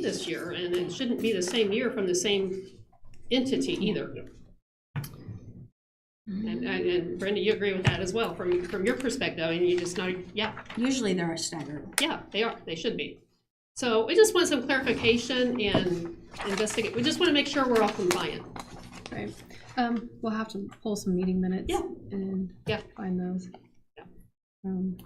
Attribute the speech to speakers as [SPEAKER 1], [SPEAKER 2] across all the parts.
[SPEAKER 1] this year, and it shouldn't be the same year from the same entity either. And, and- and Brenda, you agree with that as well, from, from your perspective, and you just know, yeah,
[SPEAKER 2] Usually they're staggered.
[SPEAKER 1] yeah, they are, they should be. So we just want some clarification and investigate, we just want to make sure we're all compliant.
[SPEAKER 3] Right. Um, we'll have to pull some meeting minutes.
[SPEAKER 1] Yeah.
[SPEAKER 3] And
[SPEAKER 1] Yeah.
[SPEAKER 3] find those.
[SPEAKER 1] Yeah.
[SPEAKER 3] Um,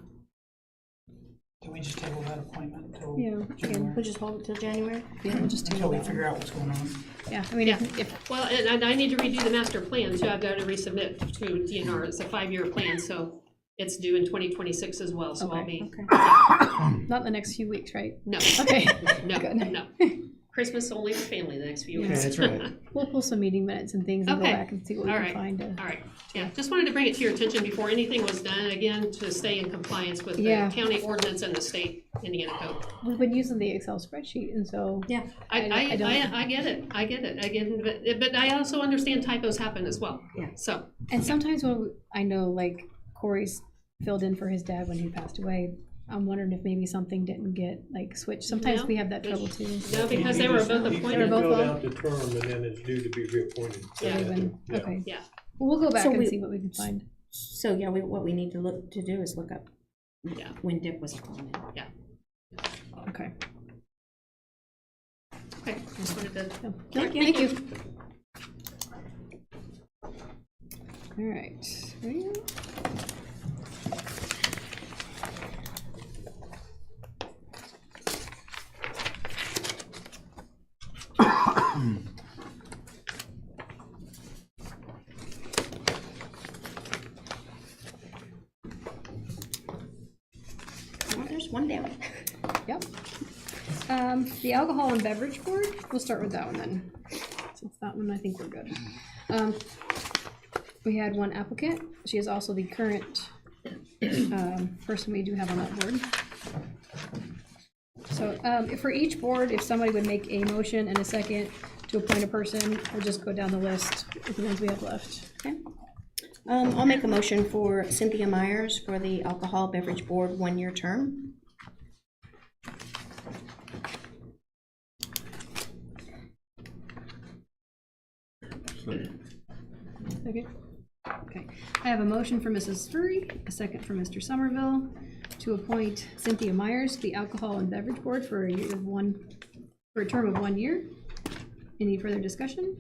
[SPEAKER 4] Can we just table that appointment until
[SPEAKER 3] yeah,
[SPEAKER 4] January?
[SPEAKER 2] We'll just hold it till January.
[SPEAKER 3] yeah, we'll just
[SPEAKER 4] Until
[SPEAKER 3] table
[SPEAKER 4] we
[SPEAKER 3] that.
[SPEAKER 4] figure out what's going on?
[SPEAKER 3] Yeah, I mean, if, if,
[SPEAKER 1] Well, and, and I need to redo the master plan, too, I've got to resubmit to DNR, it's a five-year plan, so it's due in twenty twenty-six as well, so I'll
[SPEAKER 3] Okay.
[SPEAKER 1] be,
[SPEAKER 3] not the next few weeks, right?
[SPEAKER 1] no,
[SPEAKER 3] Okay,
[SPEAKER 1] no,
[SPEAKER 3] Good.
[SPEAKER 1] no. Christmas only for family the next few
[SPEAKER 3] Yeah,
[SPEAKER 1] weeks.
[SPEAKER 5] that's right.
[SPEAKER 3] we'll pull some meeting minutes and things and go
[SPEAKER 1] Okay.
[SPEAKER 3] back and see what we
[SPEAKER 1] All
[SPEAKER 3] can
[SPEAKER 1] right.
[SPEAKER 3] find. uh,
[SPEAKER 1] All right, yeah, just wanted to bring it to your attention before anything was done, again, to stay in compliance with the
[SPEAKER 3] Yeah.
[SPEAKER 1] county ordinance and the state Indiana code.
[SPEAKER 3] We've been using the Excel spreadsheet and so,
[SPEAKER 2] Yeah.
[SPEAKER 1] I,
[SPEAKER 3] I-
[SPEAKER 1] I,
[SPEAKER 3] I don't-
[SPEAKER 1] I, I get it, I get it, I get it, but, but I also understand typos happen as well.
[SPEAKER 2] Yeah.
[SPEAKER 1] So,
[SPEAKER 3] and sometimes when we- I know like Corey's filled in for his dad when he passed away. I'm wondering if maybe something didn't get like switched. Sometimes
[SPEAKER 1] No.
[SPEAKER 3] we have that trouble too.
[SPEAKER 1] no, because they were both appointed,
[SPEAKER 3] They were both-
[SPEAKER 5] Filled
[SPEAKER 3] on?
[SPEAKER 5] out the term and then it's due to be reappointed.
[SPEAKER 1] Yeah.
[SPEAKER 3] Even-
[SPEAKER 5] Yeah.
[SPEAKER 3] Okay.
[SPEAKER 1] Yeah.
[SPEAKER 3] Well, We'll go back
[SPEAKER 2] So
[SPEAKER 3] and
[SPEAKER 2] we-
[SPEAKER 3] see what we can find.
[SPEAKER 2] So, yeah, we, what we need to look, to do is look up
[SPEAKER 1] Yeah.
[SPEAKER 2] when Dick was appointed.
[SPEAKER 3] Okay.
[SPEAKER 1] okay, just wanted to
[SPEAKER 3] So,
[SPEAKER 2] Thank
[SPEAKER 3] Thank you. All right. Ready?
[SPEAKER 2] Well, there's one down.
[SPEAKER 3] Yep. Um, the alcohol and beverage board, we'll start with that one then. Since that one, I think we're good. Um, we had one applicant. She is also the current, um, person we do have on that board. So, um, if for each board, if somebody would make a motion and a second to appoint a person, we'll just go down the list with the ones we have left.
[SPEAKER 2] Okay. Um, I'll make a motion for Cynthia Myers for the Alcohol Beverage Board, one-year term.
[SPEAKER 3] Second. Okay, I have a motion for Mrs. Furry, a second for Mr. Somerville, to appoint Cynthia Myers to the Alcohol and Beverage Board for a year of one, for a term of one year. Any further discussion?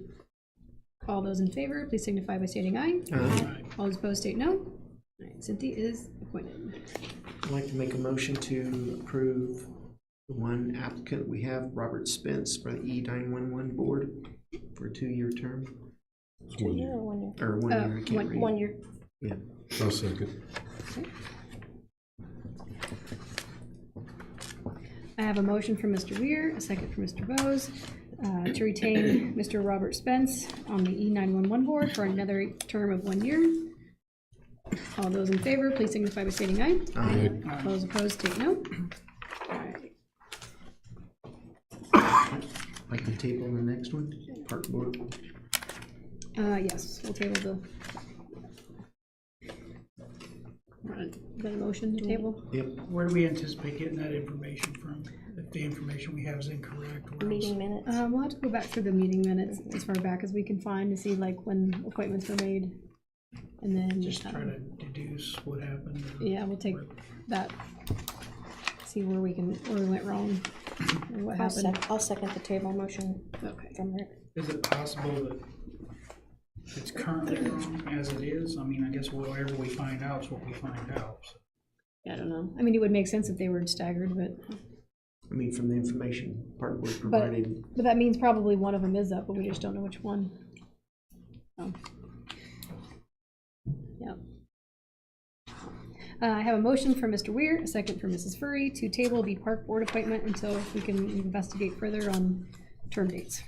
[SPEAKER 3] All those in favor, please signify by stating aye.
[SPEAKER 6] Um,
[SPEAKER 3] All those opposed, state no. All right, Cynthia is appointed.
[SPEAKER 6] I'd like to make a motion to approve the one applicant we have, Robert Spence, for the E nine one one board for a two-year term,
[SPEAKER 2] One year or one year?
[SPEAKER 6] or one year, I
[SPEAKER 3] Uh,
[SPEAKER 6] can't
[SPEAKER 3] one-
[SPEAKER 6] read.
[SPEAKER 2] One year.
[SPEAKER 6] Yeah.
[SPEAKER 7] I'll second.
[SPEAKER 3] I have a motion for Mr. Weir, a second for Mr. Bose, uh, to retain Mr. Robert Spence on the E E911 board for another term of one year. All those in favor, please signify by stating aye.
[SPEAKER 7] Aye.
[SPEAKER 3] All those opposed, state no. Alright,
[SPEAKER 6] I'd Like to table the next one, park board.
[SPEAKER 3] Uh, yes, we'll table the. Alright, Is that a motion to table?
[SPEAKER 6] Yep,
[SPEAKER 4] Where do we anticipate getting that information from? If the information we have is incorrect, where else?
[SPEAKER 2] Meeting minutes.
[SPEAKER 3] Uh, we'll have to go back through the meeting minutes as far back as we can find to see like when appointments were made. And then.
[SPEAKER 4] Just try
[SPEAKER 3] um,
[SPEAKER 4] to deduce what happened.
[SPEAKER 3] Yeah, we'll take that, see where we can, where we went wrong, or what
[SPEAKER 2] I'll
[SPEAKER 3] happened.
[SPEAKER 2] sec, I'll second the table motion
[SPEAKER 3] Okay.
[SPEAKER 2] from Rick.
[SPEAKER 4] Is it possible that it's currently wrong as it is? I mean, I guess whatever we find out is what we find out. so.
[SPEAKER 2] I don't know.
[SPEAKER 3] I mean, it would make sense if they were staggered, but,
[SPEAKER 6] I mean, from the information park board
[SPEAKER 3] but,
[SPEAKER 6] provided,
[SPEAKER 3] but that means probably one of them is up, but we just don't know which one. So. Yep. Uh, I have a motion for Mr. Weir, a second for Mrs. Furry, to table the park board appointment until we can investigate further on term dates.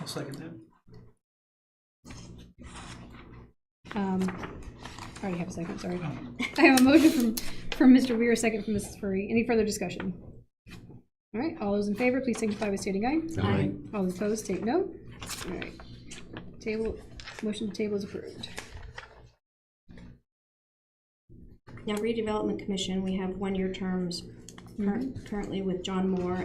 [SPEAKER 4] I'll second that.
[SPEAKER 3] Um, I already have a second, sorry.
[SPEAKER 4] Oh.
[SPEAKER 3] I have a motion from, from Mr. Weir, a second from Mrs. Furry. Any further discussion? All right, all those in favor, please signify by stating aye.
[SPEAKER 7] Aye.
[SPEAKER 3] All those opposed, take no. All right. Table, motion to table is approved.
[SPEAKER 2] Now redevelopment commission, we have one-year terms Mm-hmm. current- currently with John Moore